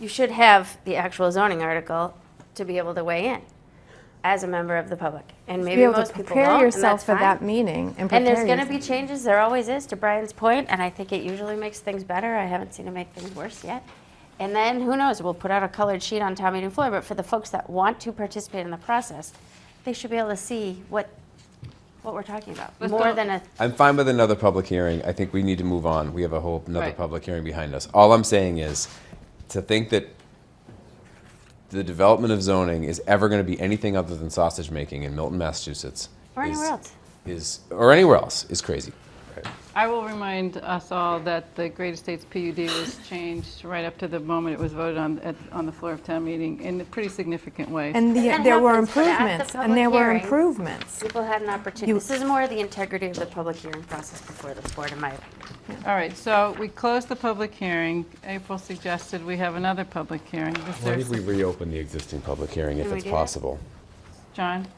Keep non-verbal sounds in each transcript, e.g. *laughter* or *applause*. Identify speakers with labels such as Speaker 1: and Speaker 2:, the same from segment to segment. Speaker 1: you should have the actual zoning article to be able to weigh in as a member of the public. And
Speaker 2: Be
Speaker 1: maybe
Speaker 2: able to
Speaker 1: most people
Speaker 2: prepare
Speaker 1: won't, and
Speaker 2: yourself
Speaker 1: that's
Speaker 2: for that
Speaker 1: fine.
Speaker 2: meeting and prepare
Speaker 1: And there's going to
Speaker 2: yourself.
Speaker 1: be changes, there always is, to Brian's point, and I think it usually makes things better. I haven't seen it make things worse yet. And then, who knows, we'll put out a colored sheet on town meeting floor, but for the folks that want to participate in the process, they should be able to see what, what we're talking about,
Speaker 3: But
Speaker 1: more
Speaker 3: don't-
Speaker 1: than a,
Speaker 4: I'm fine with another public hearing. I think we need to move on. We have a whole another
Speaker 3: Right.
Speaker 4: public hearing behind us. All I'm saying is to think that the development of zoning is ever going to be anything other than sausage making in Milton, Massachusetts.
Speaker 1: or anywhere
Speaker 4: is-
Speaker 1: else.
Speaker 4: Is or anywhere else is crazy.
Speaker 3: I will remind us all that the Great Estates PUD was changed right up to the moment it was voted on, at, on the floor of town meeting in a pretty significant way.
Speaker 2: And the-
Speaker 1: that
Speaker 2: there were
Speaker 1: happens, but at the
Speaker 2: improvements, and
Speaker 1: public
Speaker 2: there were
Speaker 1: hearing-
Speaker 2: improvements.
Speaker 1: People had an opportunity,
Speaker 2: You-
Speaker 1: this is more the integrity of the public hearing process before this board, in my opinion.
Speaker 3: All right, so we closed the public hearing. April suggested we have another public hearing. Is
Speaker 4: Why
Speaker 3: there-
Speaker 4: did we reopen the existing public hearing if
Speaker 1: Can we
Speaker 4: it's
Speaker 1: do that?
Speaker 4: possible?
Speaker 3: John?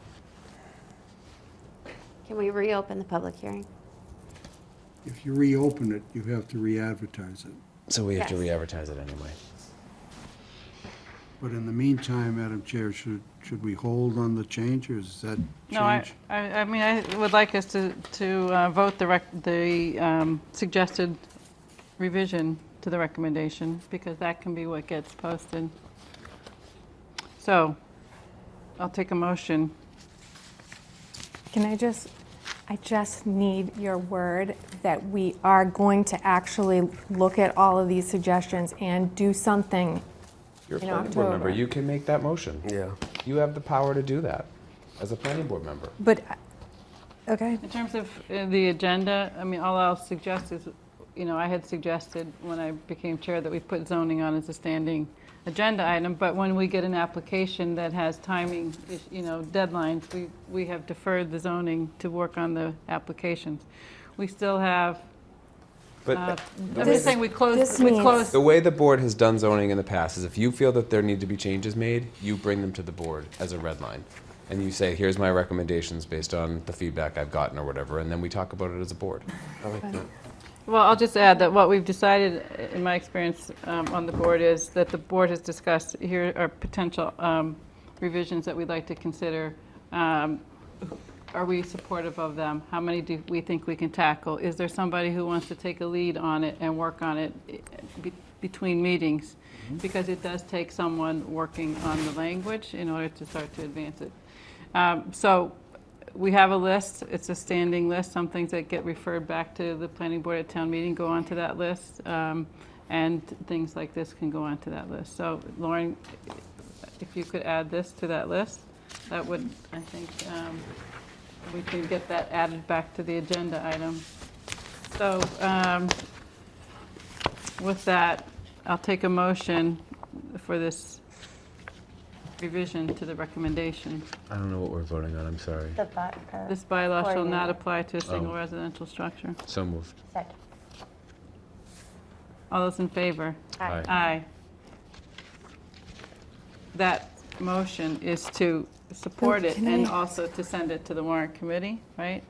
Speaker 1: Can we reopen the public hearing?
Speaker 5: If you reopen it, you have to re-advertise it.
Speaker 4: So we have to
Speaker 1: Yes.
Speaker 4: re-advertise it anyway.
Speaker 5: But in the meantime, Madam Chair, should, should we hold on the change, or is that
Speaker 3: No, I,
Speaker 5: change?
Speaker 3: I I mean, I would like us to, to uh, vote the, rec- the um, suggested revision to the recommendation, because that can be what gets posted. So, I'll take a motion.
Speaker 2: Can I just, I just need your word that we are going to actually look at all of these suggestions and do something.
Speaker 4: You're a
Speaker 2: In
Speaker 4: planning board member.
Speaker 2: October.
Speaker 4: You can make that motion.
Speaker 6: Yeah.
Speaker 4: You have the power to do that as a planning board member.
Speaker 2: But, okay,
Speaker 3: In terms of uh, the agenda, I mean, all I'll suggest is, you know, I had suggested when I became chair that we put zoning on as a standing agenda item, but when we get an application that has timing, is- you know, deadlines, we, we have deferred the zoning to work on the applications. We still have,
Speaker 4: But
Speaker 3: uh, I'm
Speaker 2: This-
Speaker 3: just saying, we
Speaker 2: this
Speaker 3: closed, we
Speaker 2: means-
Speaker 3: closed,
Speaker 4: The way the board has done zoning in the past is if you feel that there need to be changes made, you bring them to the board as a red line. And you say, here's my recommendations based on the feedback I've gotten or whatever, and then we talk about it as a board.
Speaker 3: Well, I'll just add that what we've decided, in my experience um, on the board, is that the board has discussed, here are potential um, revisions that we'd like to consider. Um, Are we supportive of them? How many do we think we can tackle? Is there somebody who wants to take a lead on it and work on it eh, be- between meetings? Because it does take someone working on the language in order to start to advance it. Um, So we have a list, it's a standing list, some things that get referred back to the planning board at town meeting go onto that list, um, and things like this can go onto that list. So Lauren, if you could add this to that list, that would, I think, um, we can get that added back to the agenda item. So um, with that, I'll take a motion for this revision to the recommendation.
Speaker 4: I don't know what we're voting on, I'm sorry.
Speaker 1: The bot, uh,
Speaker 3: This bylaw shall not
Speaker 1: Coordinator.
Speaker 3: apply to a single
Speaker 4: Oh.
Speaker 3: residential structure.
Speaker 4: So moved.
Speaker 1: second.
Speaker 3: All those in favor?
Speaker 1: Aye.
Speaker 3: Aye. That motion is to support
Speaker 2: Oh,
Speaker 3: it
Speaker 2: can
Speaker 3: and
Speaker 2: I-
Speaker 3: also to send it to the warrant committee, right?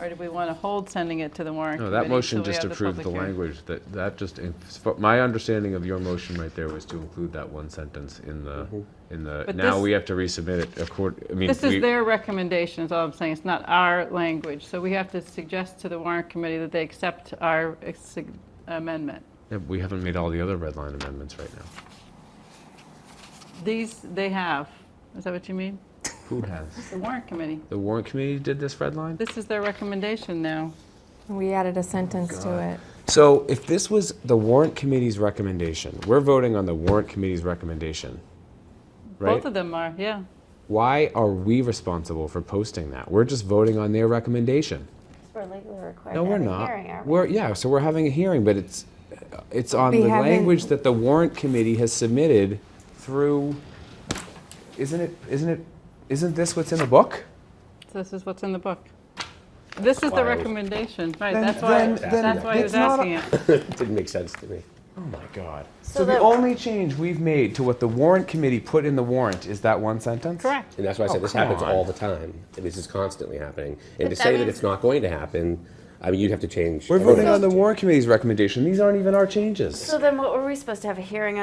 Speaker 3: Or do we want to hold sending it to the warrant
Speaker 7: No,
Speaker 3: committee?
Speaker 7: that motion
Speaker 3: till we
Speaker 7: just
Speaker 3: have
Speaker 7: approved the
Speaker 3: public hearing?
Speaker 7: language, that, that just, in- fo- my understanding of your motion right there was to include that one sentence in the,
Speaker 4: Mm-hmm.
Speaker 7: in the,
Speaker 3: But
Speaker 7: now
Speaker 3: this-
Speaker 7: we have to resubmit it accord, I mean.
Speaker 3: This is
Speaker 7: we-
Speaker 3: their recommendation, is all I'm saying. It's not our language. So we have to suggest to the warrant committee that they accept our uh, sig- amendment.
Speaker 7: yeah, We haven't made all the other red line amendments right now.
Speaker 3: These, they have. Is that what you mean?
Speaker 7: Who has?
Speaker 3: The warrant committee.
Speaker 7: The warrant committee did this red line?
Speaker 3: This is their recommendation now.
Speaker 2: we added a sentence to it.
Speaker 4: So if this was the warrant committee's recommendation, we're voting on the warrant committee's recommendation, right?
Speaker 3: Both of them are, yeah.
Speaker 4: Why are we responsible for posting that? We're just voting on their recommendation.
Speaker 1: We're legally required
Speaker 4: No,
Speaker 1: to
Speaker 4: we're
Speaker 1: have a
Speaker 4: not.
Speaker 1: hearing, are we?
Speaker 4: We're, yeah, so we're having a hearing, but it's, it's on
Speaker 2: We
Speaker 4: the
Speaker 2: haven't-
Speaker 4: language that the warrant committee has submitted through, isn't it, isn't it, isn't this what's in the book?
Speaker 3: This is what's in the book. This is the
Speaker 6: Wild.
Speaker 3: recommendation, right,
Speaker 4: Then-
Speaker 3: that's why,
Speaker 4: then- then
Speaker 3: that's why he was
Speaker 4: it's not a-
Speaker 3: asking it.
Speaker 6: It *laughs* didn't make sense to me.
Speaker 4: Oh my God.
Speaker 1: So
Speaker 4: So the
Speaker 1: the-
Speaker 4: only change we've made to what the warrant committee put in the warrant is that one sentence?
Speaker 3: Correct.
Speaker 6: And that's why I
Speaker 4: Oh,
Speaker 6: said this
Speaker 4: come
Speaker 6: happens
Speaker 4: on.
Speaker 6: all the time. This is constantly happening. And to
Speaker 1: that
Speaker 6: say that
Speaker 1: means-
Speaker 6: it's not going to happen, I mean, you'd have to change.
Speaker 4: We're
Speaker 6: everyone
Speaker 4: voting on the
Speaker 6: else's-
Speaker 4: warrant committee's recommendation. These aren't even our changes.
Speaker 1: So then what were we supposed to have a hearing on?